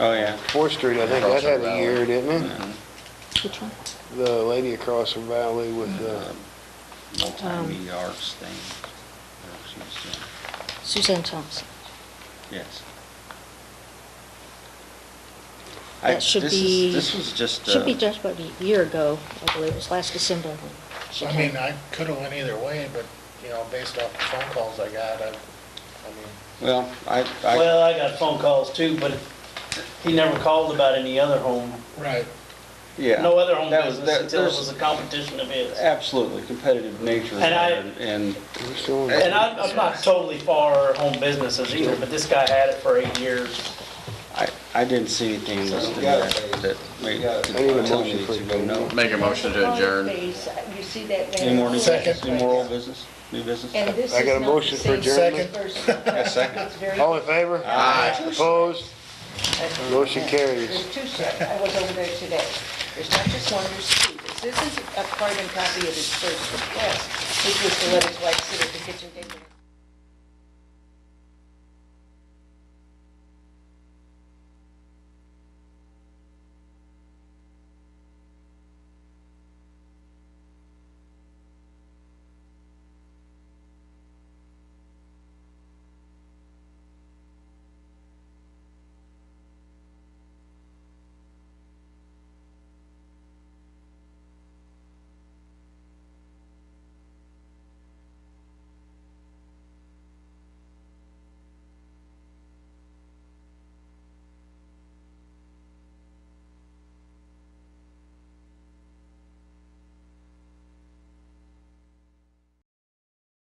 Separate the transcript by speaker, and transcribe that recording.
Speaker 1: Oh, yeah. uh,
Speaker 2: Fourth Street, I think that
Speaker 3: Across
Speaker 2: had
Speaker 3: the
Speaker 2: a
Speaker 3: valley.
Speaker 2: year, didn't it?
Speaker 4: Which one?
Speaker 2: The lady across the valley with, uh,
Speaker 1: Multi-media
Speaker 4: Um,
Speaker 1: arts thing. Or she's, uh,
Speaker 4: Suzanne Thompson.
Speaker 1: Yes. I-
Speaker 4: That should
Speaker 1: this is-
Speaker 4: be.
Speaker 1: This was just.
Speaker 4: Should
Speaker 1: uh,
Speaker 4: be just about a year ago, I believe, it was last December. when she
Speaker 3: I
Speaker 4: came.
Speaker 3: mean, I could've went either way, but, you know, based off the phone calls I got, I, I mean,
Speaker 1: Well, I, I,
Speaker 5: Well, I got phone calls too, but he never called about any other home,
Speaker 3: Right.
Speaker 1: yeah.
Speaker 5: no other home
Speaker 1: That was-
Speaker 5: business
Speaker 1: that-
Speaker 5: until it
Speaker 1: there's
Speaker 5: was a competition of his.
Speaker 1: Absolutely, competitive nature.
Speaker 5: And I-
Speaker 1: there, And,
Speaker 2: we're still in-
Speaker 5: And I'm, I'm not totally for home businesses either, but this guy had it for eight years.
Speaker 1: I, I didn't see anything listed that, that made,
Speaker 2: I need a
Speaker 1: that tell me
Speaker 2: motion
Speaker 1: that
Speaker 2: for
Speaker 1: you go no.
Speaker 6: Make a motion to adjourn.
Speaker 7: You see that there?
Speaker 1: Any more new business,
Speaker 3: Second.
Speaker 1: any more old business, new business?
Speaker 7: And this
Speaker 2: I
Speaker 7: is
Speaker 2: got a
Speaker 7: not the
Speaker 2: motion for Oh,
Speaker 7: same
Speaker 3: adjournment.
Speaker 7: person.
Speaker 1: A second.
Speaker 7: It's very-
Speaker 2: All in favor?
Speaker 6: Aye.
Speaker 2: Opposed? Motion carries.
Speaker 7: There's two sets. I was over there today. There's not just one, there's two. This isn't a carbon copy of his first request, which was to let his wife sit at the kitchen table.